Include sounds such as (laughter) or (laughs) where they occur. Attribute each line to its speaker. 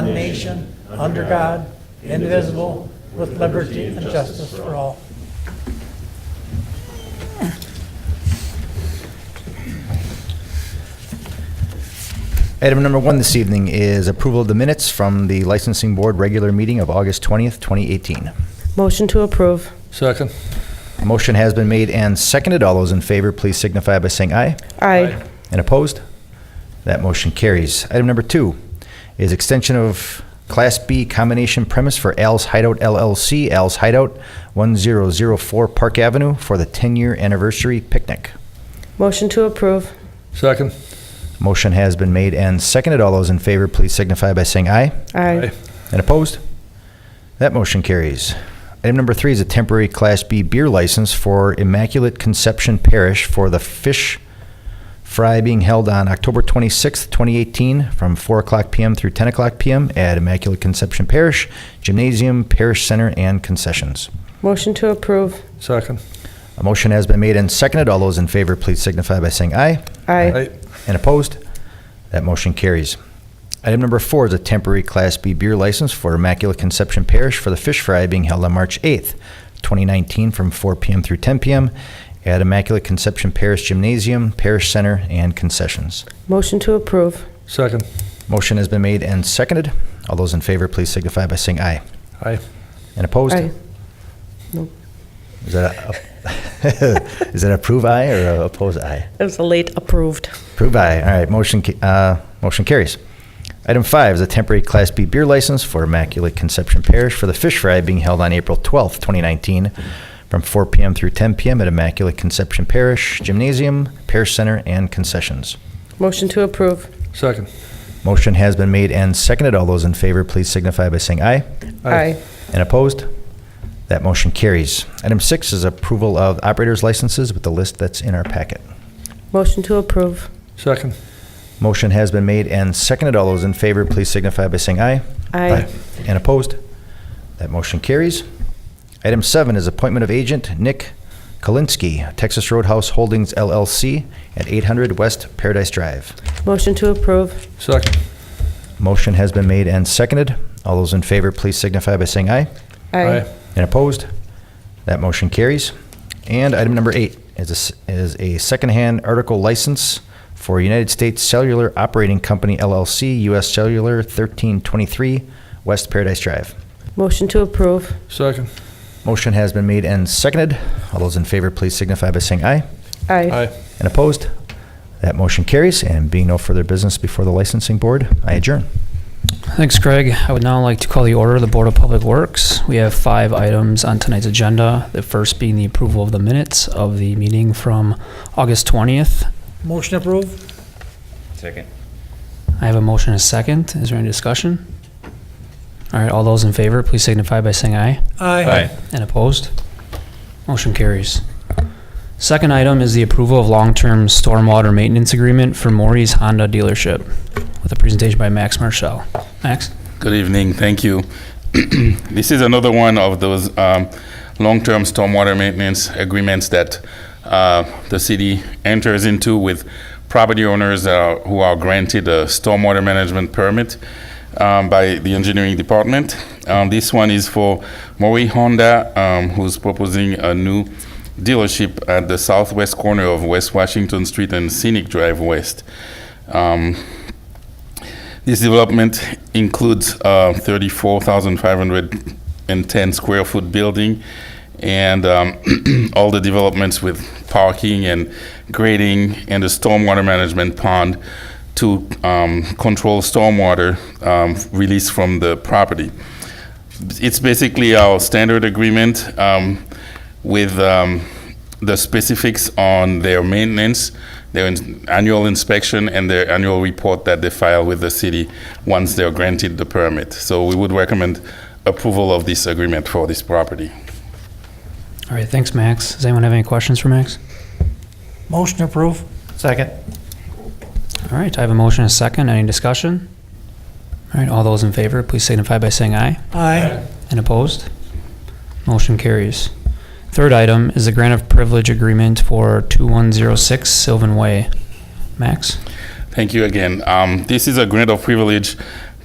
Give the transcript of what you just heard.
Speaker 1: one nation, under God, indivisible, with liberty and justice for all.
Speaker 2: Item number one this evening is approval of the minutes from the Licensing Board regular meeting of August 20th, 2018.
Speaker 3: Motion to approve.
Speaker 4: Second.
Speaker 2: A motion has been made and seconded. All those in favor, please signify by saying aye.
Speaker 3: Aye.
Speaker 2: And opposed? That motion carries. Item number two is extension of Class B combination premise for Al's Hideout LLC, Al's Hideout, 1004 Park Avenue, for the 10-year anniversary picnic.
Speaker 3: Motion to approve.
Speaker 4: Second.
Speaker 2: Motion has been made and seconded. All those in favor, please signify by saying aye.
Speaker 3: Aye.
Speaker 2: And opposed? That motion carries. Item number three is a temporary Class B beer license for Immaculate Conception Parish for the fish fry being held on October 26th, 2018, from 4 o'clock PM through 10 o'clock PM at Immaculate Conception Parish, Gymnasium, Parish Center, and concessions.
Speaker 3: Motion to approve.
Speaker 4: Second.
Speaker 2: A motion has been made and seconded. All those in favor, please signify by saying aye.
Speaker 3: Aye.
Speaker 2: And opposed? That motion carries. Item number four is a temporary Class B beer license for Immaculate Conception Parish for the fish fry being held on March 8th, 2019, from 4 p.m. through 10 p.m. at Immaculate Conception Parish Gymnasium, Parish Center, and concessions.
Speaker 3: Motion to approve.
Speaker 4: Second.
Speaker 2: Motion has been made and seconded. All those in favor, please signify by saying aye.
Speaker 4: Aye.
Speaker 2: And opposed?
Speaker 3: Aye.
Speaker 2: Is that a- (laughs) is that approve aye or oppose aye?
Speaker 3: It was a late approved.
Speaker 2: Approved by, all right, motion, ca- uh, motion carries. Item five is a temporary Class B beer license for Immaculate Conception Parish for the fish fry being held on April 12th, 2019, from 4 PM through 10 PM at Immaculate Conception Parish Gymnasium, Parish Center, and concessions.
Speaker 3: Motion to approve.
Speaker 4: Second.
Speaker 2: Motion has been made and seconded. All those in favor, please signify by saying aye. And opposed? That motion carries. Item six is approval of operators licenses with the list that's in our packet.
Speaker 3: Motion to approve.
Speaker 4: Second.
Speaker 2: Motion has been made and seconded. All those in favor, please signify by saying aye.
Speaker 3: Aye.
Speaker 2: And opposed? That motion carries. Item seven is appointment of agent Nick Kalinsky, Texas Roadhouse Holdings LLC at 800 West Paradise Drive.
Speaker 3: Motion to approve.
Speaker 4: Second.
Speaker 2: Motion has been made and seconded. All those in favor, please signify by saying aye. And opposed? That motion carries. And item number eight is a, s- is a secondhand article license for United States Cellular Operating Company LLC, US Cellular 1323, West Paradise Drive.
Speaker 3: Motion to approve.
Speaker 4: Second.
Speaker 2: Motion has been made and seconded. All those in favor, please signify by saying aye.
Speaker 3: Aye.
Speaker 2: And opposed? That motion carries, and being no further business before the licensing board, I adjourn.
Speaker 5: Thanks, Greg. I would now like to call the order of the Board of Public Works. We have five items on tonight's agenda, the first being the approval of the minutes of the meeting from August 20th.
Speaker 1: Motion approved?
Speaker 6: Second.
Speaker 5: I have a motion and a second. Is there any discussion? All right, all those in favor, please signify by saying aye.
Speaker 1: Aye.
Speaker 5: And opposed? Motion carries. Second item is the approval of long-term stormwater maintenance agreement for Maury's Honda dealership with a presentation by Max Marshall. Max?
Speaker 7: Good evening, thank you. (clears throat) This is another one of those um, long-term stormwater maintenance agreements that uh, the city enters into with property owners that are- who are granted a stormwater management permit um, by the engineering department. Um, This one is for Mori Honda, um, who's proposing a new dealership at the southwest corner of West Washington Street and Scenic Drive West. Um, this development includes uh, a 34,510 square foot building and um, (clears throat) all the developments with parking and grading and a stormwater management pond to um, control stormwater um, released from the property. It's basically our standard agreement um, with um, the specifics on their maintenance, their ins- annual inspection, and their annual report that they file with the city once they're granted the permit. So we would recommend approval of this agreement for this property.
Speaker 5: All right, thanks, Max. Does anyone have any questions for Max?
Speaker 1: Motion approved?
Speaker 2: Second.
Speaker 5: All right, I have a motion and a second. Any discussion? All right, all those in favor, please signify by saying aye.
Speaker 1: Aye.
Speaker 5: And opposed? Motion carries. Third item is the grant of privilege agreement for 2106 Sylvan Way. Max?
Speaker 7: Thank you again. Um, This is a grant of privilege